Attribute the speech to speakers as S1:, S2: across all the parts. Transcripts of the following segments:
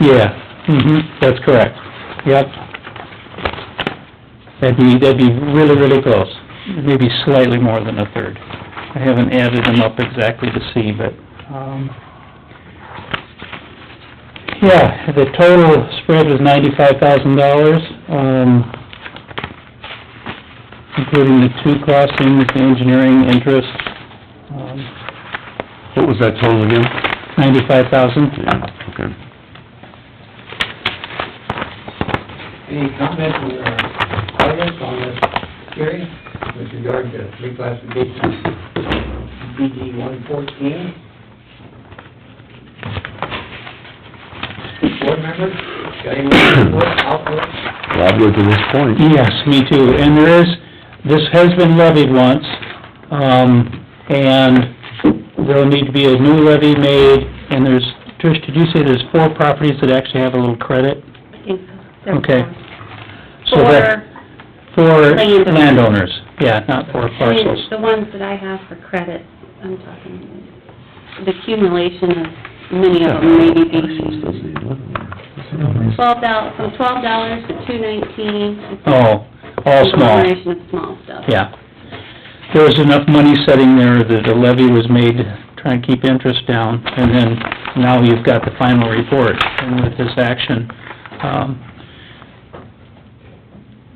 S1: Yeah, mhm, that's correct, yep. That'd be, that'd be really, really close, maybe slightly more than a third. I haven't added them up exactly to see, but, um, yeah, the total spread was ninety-five thousand dollars, um, including the two crossings, the engineering interest, um,
S2: What was that total again?
S1: ninety-five thousand.
S2: Yeah, okay.
S3: Any comment from our audience on this hearing with regard to reclassification of DD one fourteen? Board members, got any input, output?
S2: Well, I'll go to this point.
S1: Yes, me too, and there is, this has been levied once, um, and there'll need to be a new levy made, and there's, Trish, did you say there's four properties that actually have a little credit? Okay. So that-
S4: For,
S1: For
S4: Landowners.
S1: landowners, yeah, not for
S4: I mean,
S1: parcels.
S4: the ones that I have for credit, I'm talking, the accumulation of many of them, maybe be twelve dollars, from twelve dollars to two nineteen.
S1: Oh, all small,
S4: Accumulation of small stuff.
S1: yeah. There was enough money sitting there that a levy was made, to try and keep interest down, and then now you've got the final report, and with this action, um,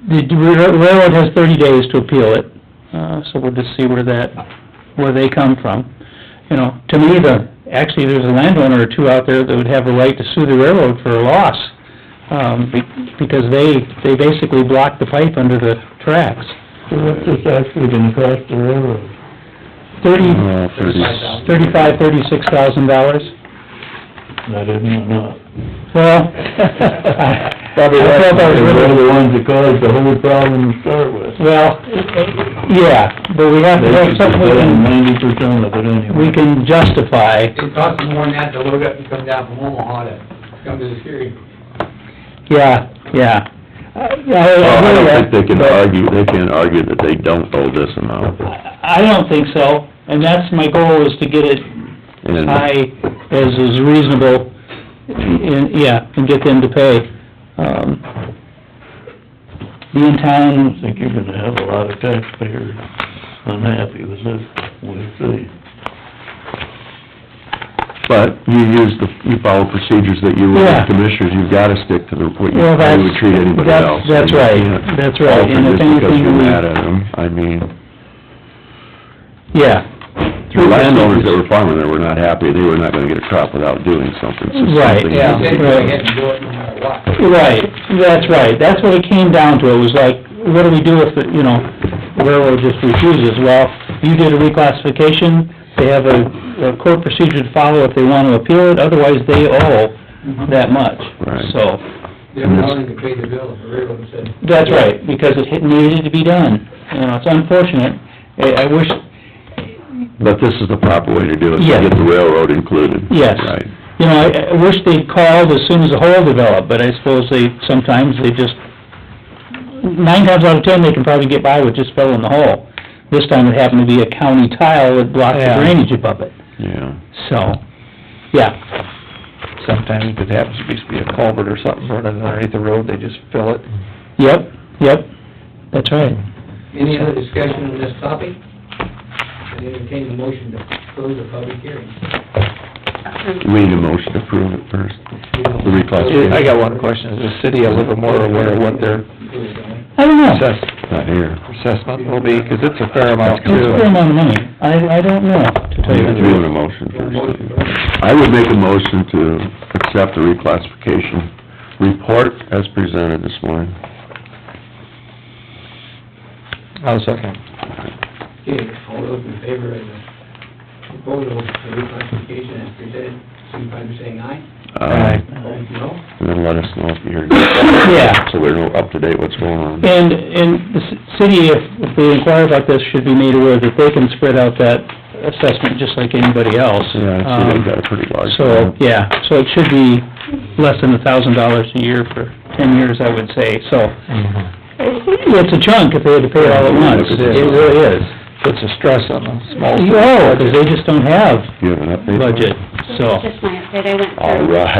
S1: The railroad has thirty days to appeal it, uh, so we'll just see where that, where they come from. You know, to me, the, actually, there's a landowner or two out there that would have a right to sue the railroad for a loss, um, be- because they, they basically blocked the pipe under the tracks.
S5: So what's this actually gonna cost the railroad?
S1: Thirty,
S2: Oh, thirty.
S1: thirty-five, thirty-six thousand dollars.
S5: That isn't enough.
S1: Well, I I felt I was
S5: They're
S1: really,
S5: the ones that caused the whole problem to start with.
S1: well, yeah, but we have to
S5: They
S1: have
S5: should be
S1: something we
S5: paying
S1: can,
S5: ninety percent of it anyway.
S1: we can justify.
S3: It costs more than that to load up and come down from Omaha to come to this hearing.
S1: Yeah, yeah. Uh, I,
S2: Well, I
S1: I
S2: don't think
S1: agree
S2: they
S1: with
S2: can
S1: that,
S2: argue, they can't argue that they don't owe this amount.
S1: but I don't think so, and that's my goal, is to get it
S2: And
S1: high as is reasonable, and, yeah, and get them to pay. Um, Being
S5: I
S1: town,
S5: think you're gonna have a lot of taxpayers unhappy with this, we'll see.
S2: But you use the, you follow procedures that you would
S1: Yeah.
S2: as commissioners, you've gotta stick to the, what you,
S1: Well,
S2: how
S1: that's-
S2: you would treat anybody
S1: that's-
S2: else.
S1: that's
S2: You
S1: right.
S2: can't
S1: That's right.
S2: alter
S1: And if
S2: just because
S1: anything,
S2: you're
S1: we-
S2: mad at them, I mean,
S1: yeah.
S2: the landowners that were farming there were not happy, they were not gonna get a crop without doing something, so something.
S1: Right,
S2: you
S1: yeah,
S3: They
S2: need
S3: said
S2: to
S3: go
S2: do.
S3: ahead and do it no matter what.
S1: Right, that's right, that's what it came down to, it was like, what do we do if, the you know, railroad just refuses? Well, you did a reclassification, they have a, a court procedure to follow if they want to appeal it, otherwise they owe that much.
S2: Right.
S1: So,
S3: They're willing to pay the bill, the railroad said.
S1: that's right, because it had- needed to be done, you know, it's unfortunate, I, I wish,
S2: But this is the proper way to do it,
S1: Yes.
S2: to get the railroad included.
S1: Yes.
S2: Right.
S1: you know, I, I wish they'd called as soon as the hole developed, but I suppose they, sometimes they just, nine times out of ten, they can probably get by with just filling the hole. This time it happened to be a county tile that blocked the
S5: Yeah.
S1: drainage above it,
S2: Yeah.
S1: so, yeah,
S6: sometimes it happens to just be a culvert or something running underneath the road, they just fill it.
S1: yep, yep, that's right.
S3: Any other discussion on this topic? I entertain a motion to close the public hearing.
S2: We need a motion to approve it first. The reclassification.
S6: I got one question, is the city a little more aware of what their
S1: I don't know,
S6: assess,
S2: Not here.
S6: assessment will be? Because it's a fair amount
S1: it's a
S6: too.
S1: fair amount of money, I, I don't know, to tell you the
S2: Doing
S1: truth.
S2: a motion first. I would make a motion to accept the reclassification report as presented this morning.
S6: I'll second.
S3: Okay, all those in favor of the proposal for reclassification as presented, signify by saying aye.
S2: Uh,
S3: Opposed, no.
S2: And then let us know if you're,
S1: Yeah.
S2: so we're up to date what's going on.
S1: And, and the ci- city, if if they inquire about this, should be made aware that they can spread out that assessment just like anybody else.
S2: Yeah, I see
S1: Um,
S2: they've got a pretty large.
S1: So, yeah, so it should be less than a thousand dollars a year for ten years, I would say, so. Mm-hmm. It's a chunk if they had to pay it all at once, it really is.
S6: Puts a stress on the small.
S1: You know, 'cause they just don't have
S2: Do you have an update?
S1: budget, so.
S4: Just my update, I went through.
S2: All right.